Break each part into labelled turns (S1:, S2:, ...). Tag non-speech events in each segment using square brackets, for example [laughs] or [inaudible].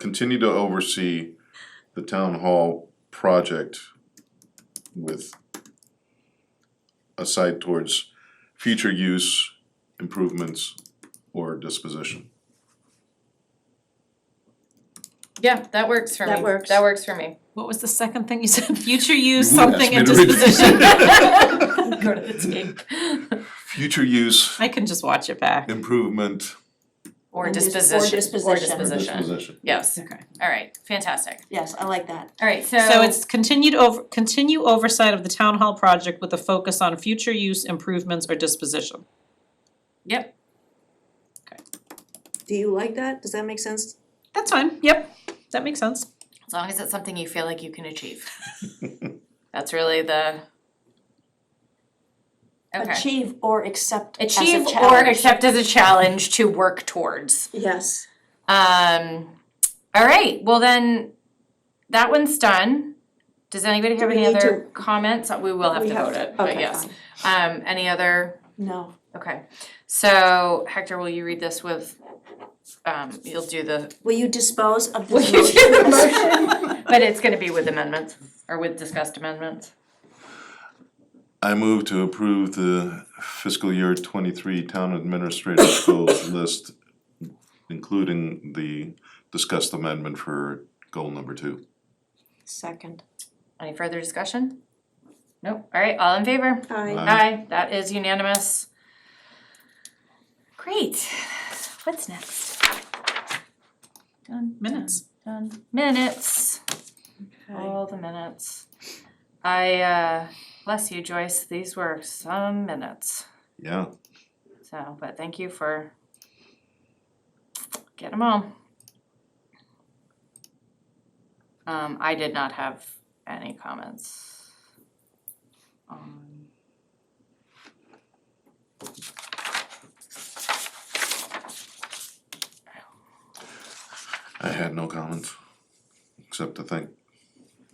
S1: continue to oversee the town hall project with a sight towards future use, improvements, or disposition.
S2: Yeah, that works for me.
S3: That works.
S2: That works for
S3: [laughs]
S2: me.
S4: What was the second thing you said? [laughs] Future use,
S1: You asked
S4: something
S1: me
S4: and
S1: to read it.
S4: disposition.
S2: Go to the tape.
S3: [laughs]
S1: Future use,
S4: I can just watch it back.
S1: improvement,
S2: Or
S3: Or dis- or
S2: disposition, or
S3: disposition.
S1: or
S2: disposition.
S1: disposition.
S2: Yes,
S4: Okay.
S2: alright, fantastic.
S3: Yes, I like that.
S2: Alright, so.
S4: So it's continued over, continue oversight of the town hall project with a focus on future use improvements or disposition.
S2: Yep,
S3: Do you like that? Does that make sense?
S4: That's fine, yep, that makes sense.
S2: as long as it's something you feel like you can achieve. [laughs] That's really the. Okay.
S3: Achieve or accept as a
S2: Achieve or
S3: challenge.
S2: accept as a challenge to work towards.
S3: Yes.
S2: Um, all right, well then, that one's done. Does anybody have
S3: we
S2: any
S3: need
S2: other comments? We will have
S3: We
S2: to
S3: have
S2: vote
S3: to-
S2: it, but
S3: okay,
S2: yes.
S3: fine.
S2: Um, any other,
S3: No.
S2: okay. So Hector, will you read this with, um, you'll do the,
S3: Will you dispose of
S2: Will
S3: this
S2: you do the
S3: motion?
S2: but it's gonna be with amendments or with discussed amendments.
S1: I move to approve the fiscal year twenty-three town administrative goals list, including the discussed amendment for goal number two.
S3: Second.
S2: Any further discussion? Nope, all right, all in favor?
S3: I,
S1: Aye.
S2: Aye, that is unanimous. Great, what's next? Done.
S4: Minutes.
S2: Done. Minutes, all the minutes. I, uh, bless you Joyce, these were some minutes,
S1: Yeah,
S2: so, but thank you for get them all. Um, I did not have any comments. Um, on-
S1: I had no comments, except to thank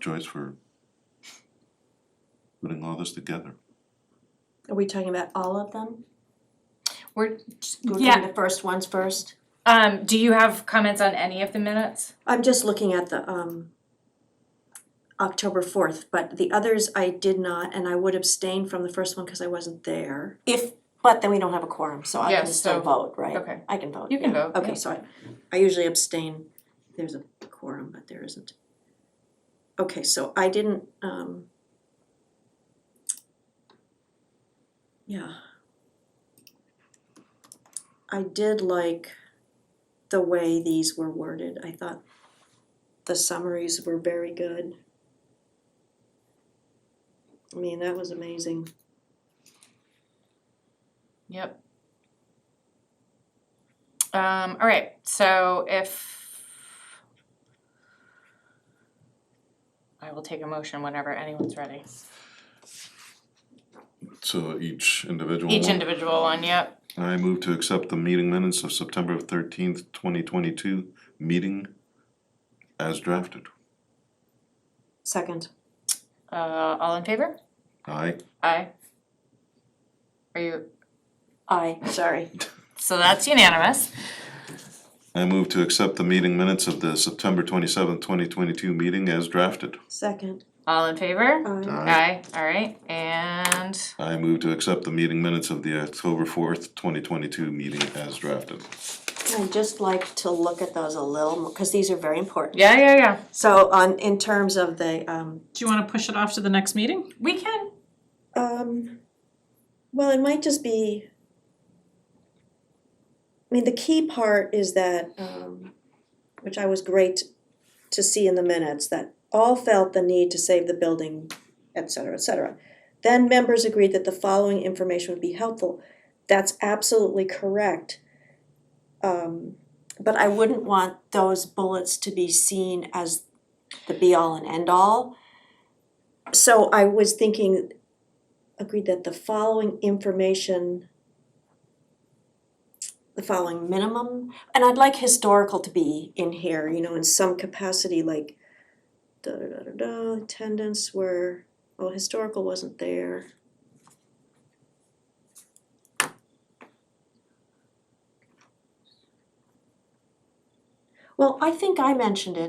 S1: Joyce for putting all this together.
S3: are we talking about all of them?
S2: We're,
S3: Go
S2: yeah,
S3: through the first ones first?
S2: um, do you have comments on any of the minutes?
S3: I'm just looking at the, um, October fourth, but the others I did not, and I would abstain from the first one because I wasn't there.
S5: If, but then we don't have a quorum, so I
S2: Yeah,
S5: can still
S2: so-
S5: vote, right?
S2: okay.
S5: I can vote,
S2: You can
S5: yeah.
S2: vote, yeah.
S3: Okay, so I, I usually abstain, there's a quorum, but there isn't. Okay, so I didn't, um. Yeah. I did like the way these were worded, I thought the summaries were very good. I mean, that was amazing,
S2: Yep. Um, all right, so if I will take a motion whenever anyone's ready.
S1: So each individual
S2: Each
S1: one.
S2: individual one, yep.
S1: I move to accept the meeting minutes of September thirteenth, twenty twenty-two, meeting as drafted.
S3: second,
S2: Uh, all in favor?
S1: Aye.
S2: Aye. Are you,
S5: I,
S3: sorry,
S2: so that's unanimous.
S1: I move to accept the meeting minutes of the September twenty-seventh, twenty twenty-two meeting as drafted.
S3: second,
S2: All in favor?
S3: aye,
S2: Aye, all right, and
S1: I move to accept the meeting minutes of the October fourth, twenty twenty-two meeting as drafted.
S5: I'd just like to look at those a little more, cause these are very important.
S2: yeah, yeah, yeah,
S3: so on, in terms of the, um,
S4: Do you wanna push it off to the next meeting?
S2: we can,
S3: Um, well, it might just be. I mean, the key part is that, um, which I was great to see in the minutes, that all felt the need to save the building, et cetera, et cetera. Then members agreed that the following information would be helpful. That's absolutely correct. Um,
S5: But I wouldn't want those bullets to be seen as the be all and end all.
S3: So I was thinking, agreed that the following information, the following
S5: Minimum, and I'd like historical to be,
S3: in here, you know, in some capacity, like da da da da da, attendance were, well, historical wasn't there. Well, I think I mentioned it